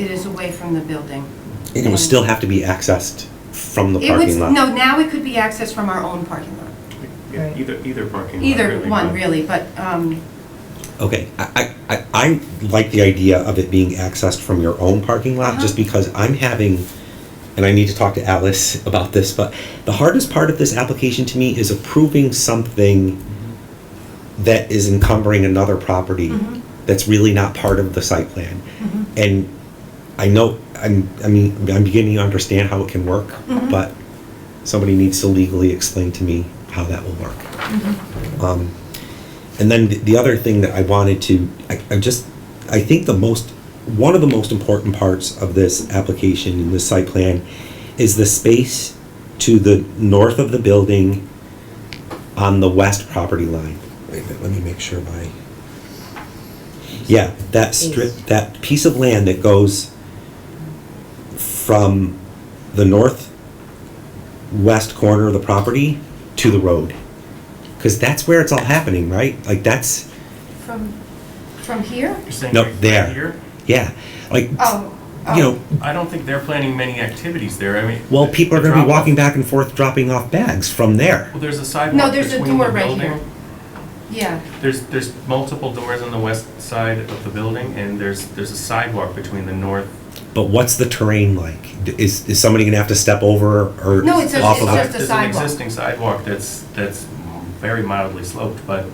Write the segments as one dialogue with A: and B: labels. A: It is away from the building.
B: And it would still have to be accessed from the
A: It would,
B: parking lot.
A: no, now it could be accessed from our own parking lot.
C: Yeah,
D: Right.
C: either, either parking lot.
A: Either one,
C: but-
A: really, but, um,
B: Okay, I, I, I- I like the idea of it being accessed from your own parking lot, just
A: Uh-huh.
B: because I'm having, and I need to talk to Alice about this, but the hardest part of this application to me is approving something that is encumbering another property
A: Mhm.
B: that's really not part of the site plan.
A: Mhm.
B: And I know, I'm, I mean, I'm beginning to understand how it can work,
A: Mhm.
B: but somebody needs to legally explain to me how that will work. Um, And then th- the other thing that I wanted to, I, I just, I think the most, one of the most important parts of this application and this site plan is the space to the north of the building on the west property line. Wait a minute, let me make sure my, yeah, that strip,
D: East.
B: that piece of land that goes from the northwest corner of the property to the road. Because that's where it's all happening, right? Like that's,
A: from, from here?
C: You're saying
B: No,
C: right- right
B: there.
C: here?
B: yeah, like,
A: Oh, oh.
B: you know,
C: I don't think they're planning many activities there, I mean.
B: well,
C: the-
B: people are
C: the
B: going to be
C: drop-off-
B: walking back and forth, dropping off bags from there.
C: Well, there's a sidewalk
A: No, there's a
C: between
A: door
C: the
A: right
C: building.
A: here. Yeah,
C: There's, there's multiple doors on the west side of the building, and there's, there's a sidewalk between the north.
B: But what's the terrain like? D- Is, is somebody going to have to step over or
A: No, it's a-
B: off
A: it's
B: of
A: just a
B: it?
C: There's an
A: sidewalk.
C: existing sidewalk that's, that's very mildly sloped, but,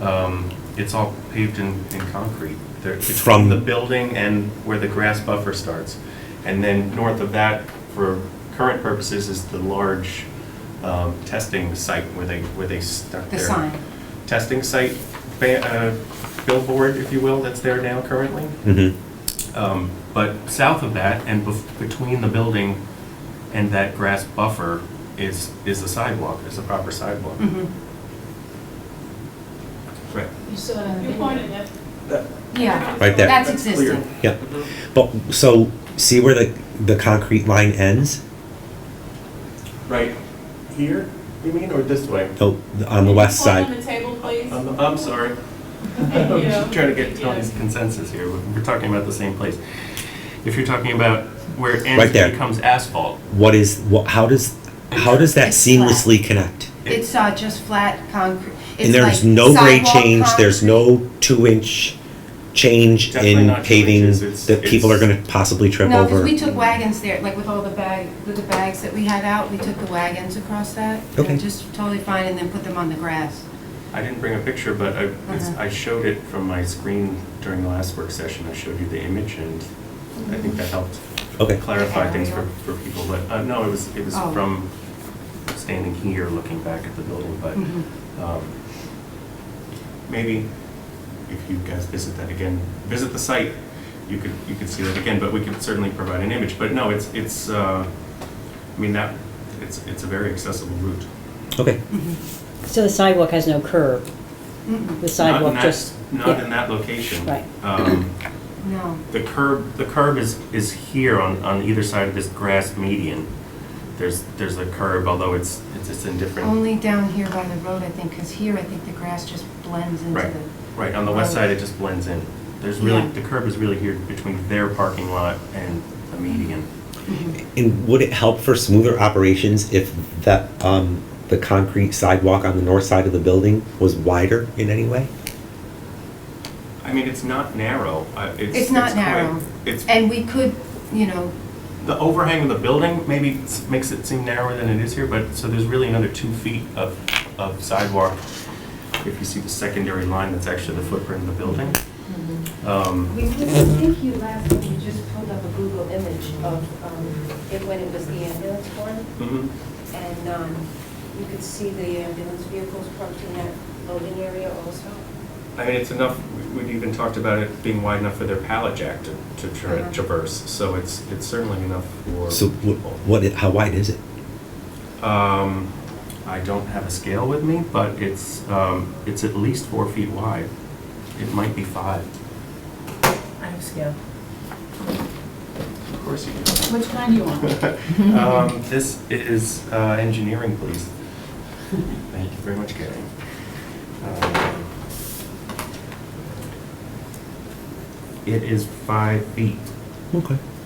C: um, it's all paved in, in concrete. There- it's
B: From-
C: Between the building and where the grass buffer starts. And then north of that, for current purposes, is the large, um, testing site where they, where they stuck
A: the
C: their
A: sign.
C: testing site, ba- uh, billboard, if you will, that's there now currently.
B: Mhm.
C: Um, But south of that and bef- between the building and that grass buffer is, is a sidewalk, is a proper sidewalk.
A: Mhm.
C: Right.
D: You saw it on the
E: You
D: video.
E: pointed it.
A: Yeah,
B: Right there.
A: that's
C: Clear.
A: existing.
B: Yeah. But, so, see where the, the concrete line ends?
C: Right here, you mean, or this way?
B: The- Oh, On the
E: Can you
B: west
E: point
B: side?
E: on the table, please?
C: I'm, I'm sorry.
E: Thank
C: I'm
E: you.
C: just trying to get
E: Thank you.
C: Tony's consensus here. We're we're talking about the same place. If you're talking about where it ends
B: Right there.
C: becomes asphalt,
B: What is, what, how does, how does that
A: It's flat.
B: seamlessly connect?
A: It's, uh, just flat concrete.
B: And
A: It's
B: there's
A: like
B: no grade
A: sidewalk
B: change, there's
A: concrete.
B: no two-inch change
C: Definitely
B: in
C: not two
B: paving
C: inches, it's-
B: that people are
C: it's-
B: gonna possibly trip
A: No, because
B: over?
A: we took wagons there, like with all the bag, with the bags that we had out, we took the wagons across that. They're
B: Okay.
A: Just totally fine, and then put them on the grass.
C: I didn't bring a picture, but I, it's-
A: Uh-huh.
C: I showed it from my screen during the last work session. I showed you the image and I think that helped
B: Okay,
C: clarify things for, for people. But, uh, no, it was, it was
A: Oh.
C: from standing here, looking back at the building,
A: Mhm.
C: but, um, maybe if you guys visit that again, visit the site, you could, you could see that again, but we could certainly provide an image. But no, it's, it's, uh, I mean, that, it's, it's a very accessible route.
B: okay.
F: So the sidewalk has no curb?
A: Mm-mm.
F: The
C: Not in
F: sidewalk
C: that-
F: just?
C: Not
F: yeah.
C: in that location.
F: Right.
C: Um,
A: No.
C: The curb, the curb is, is here on, on either side of this grass median. There's, there's a curb, although it's, it's it's in different,
A: Only down here by the road, I think, because here, I think the grass just blends into
C: right,
A: the,
C: right, on the west side, it just blends in. There's really,
A: Yeah.
C: the curb is really here between their parking lot and the median.
B: And would it help for smoother operations if that, um, the concrete sidewalk on the north side of the building was wider in any way?
C: I mean, it's not narrow, I- it's.
A: It's not
C: quite-
A: narrow.
C: It's,
A: and we could, you know,
C: the overhang of the building maybe s- makes it seem narrower than it is here, but, so there's really another two feet of, of sidewalk. If you see the secondary line, that's actually the footprint of the building.
A: Mm-hmm.
C: Um,
G: We, I think you last, you just pulled up a Google image of, um, it when it was the ambulance one,
C: mhm.
G: and, um, you could see the ambulance vehicles parked in that loading area also.
C: I mean, it's enough, we- we've even talked about it being wide enough for their pallet jack to, to tra-
G: Uh-huh.
C: traverse, so it's, it's certainly enough for
B: So wh-
C: people.
B: what, i- how wide is it?
C: Um, I don't have a scale with me, but it's, um, it's at least four feet wide. It might be five.
D: I have scale.
C: Of course you do.
E: Which kind do you want?
C: Um, this is, uh, engineering, please. Thank you very much, Gary. Um, It is five feet.
B: Okay.